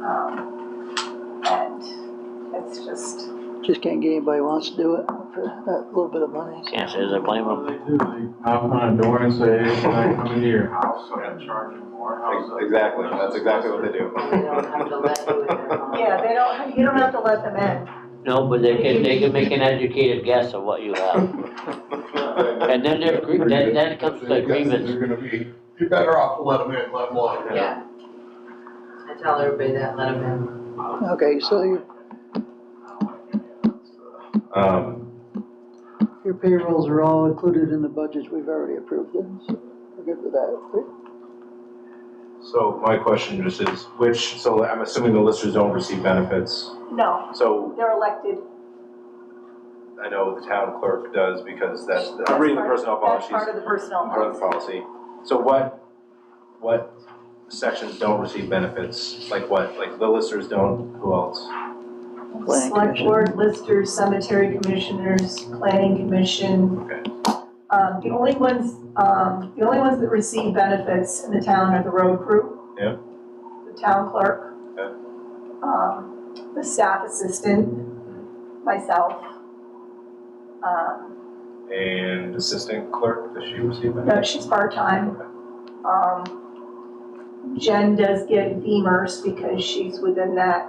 Um, and it's just, Just can't get anybody wants to do it for that little bit of money. Can't say as I blame What them. do they do? They knock on a door and say, hey, can I come into your house? So I'm charging more. How's that? Exactly, that's exactly what they do. They don't have to let you in their home. yeah, they don't, you don't have to let them in. No, but they can, they can make an educated guess of what you have. And then there's, gr- then, then comes the grievance. They're gonna be, you're better off to let them in, let them alone. Yeah. I tell everybody that, let them in. Okay, so your, Um, your payrolls are all included in the budgets we've already approved them, so we're good with that. right? so my question just is, which, so I'm assuming the listers don't receive benefits. No, So they're elected. I know the town clerk does because that's, I'm reading the That's personnel part- policies. That's part of the personnel part of the policy. policy. So what, what sections don't receive benefits? Like what, like the listers don't, who else? Planning Select commission. board, listers, cemetery commissioners, planning commission. Okay. Um, the only ones, um, the only ones that receive benefits in the town are the road crew. Yeah. The town clerk. Yeah. Um, the staff assistant, myself. Um, And assistant clerk, does she receive no, benefits? she's part-time. Um, Jen does get beamers because she's within that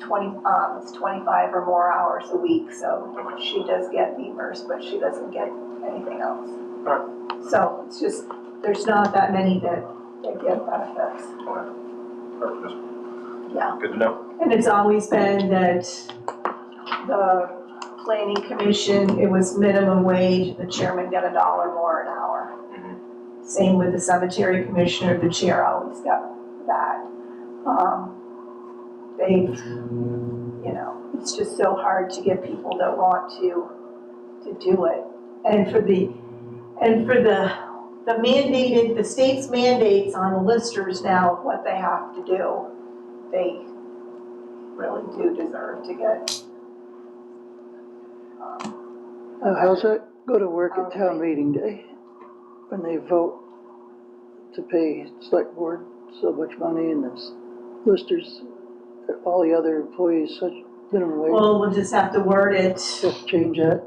twenty, um, it's twenty-five or more hours a week, so she does get beamers, but she doesn't get anything else. So it's just, there's not that many that, that get benefits, Or just yeah. Good to know. And it's always been that the planning commission, it was minimum wage, the chairman got a dollar more an hour. Same with the cemetery commissioner, the chair always got that. Um, They, you know, it's just so hard to get people that want to, to do it. And for the, and for the, the mandated, the state's mandates on the listers now of what they have to do, they really do deserve to get. um, Uh, How's that go to work at town meeting day? When they vote to pay select board so much money and this listers, all the other employees such minimum wage, Well, we'll just have to word it, just change that.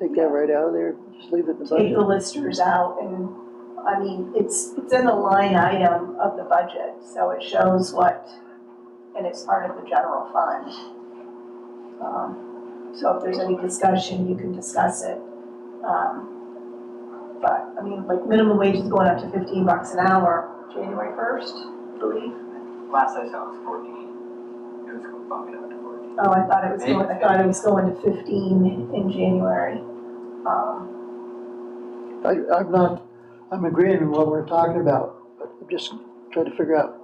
Take that right out of there, just leave it in the take budget. the listers out and, I mean, it's, it's in the line item of the budget, so it shows what, and it's part of the general fund. Um, So if there's any discussion, you can discuss it. Um, But, I mean, like minimum wage is going up to fifteen bucks an hour, January first, I believe. Last I saw it was fourteen. It was bumping up to fourteen. Oh, I thought it was going, I thought it was going to fifteen in January. Um, I, I'm not, I'm agreeing with what we're talking about, but I'm just trying to figure out.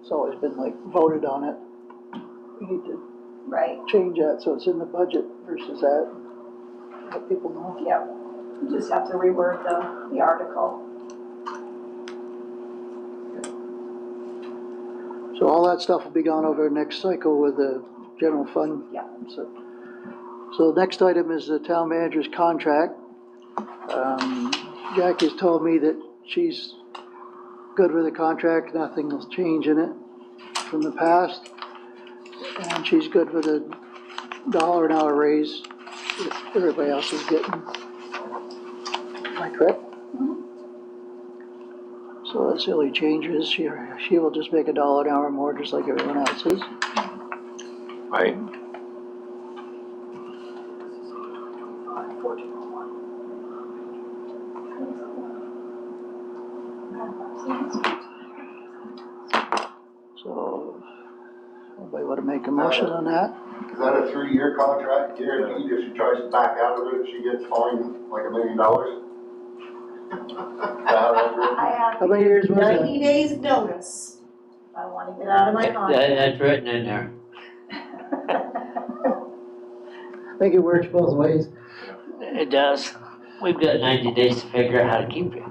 It's always been like voted on it. We need to right, change that so it's in the budget versus that, let people know. yep. You Just have to reword the, the article. So all that stuff will be gone over next cycle with the general fund? Yeah. So- So the next item is the town manager's contract. Um, Jack has told me that she's good with the contract, nothing will change in it from the past. And she's good with a dollar an hour raise that everybody else is getting. Am I correct? So that's the only change is she, she will just make a dollar an hour more, just like everyone else is. Right. Twenty-five, fourteen oh one. So, anybody wanna make a motion on that? Is that a three-year contract guaranteed? If she tries to back out of it, she gets fined like a million dollars? Is that how that's written? I have How many years was it? ninety days notice. If I wanna get out of my contract. That, that's written in there. I think it works both ways. It does. We've got ninety days to figure out how to keep you.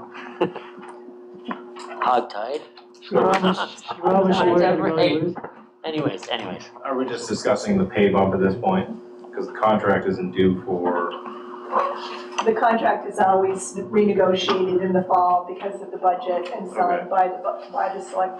Hogtied. She promised, she promised she wasn't gonna Right. lose. Anyways, anyways. Are we just discussing the pay bump at this point? Because the contract isn't due for, The contract is always renegotiated in the fall because of the budget and signed by the, bu- by the select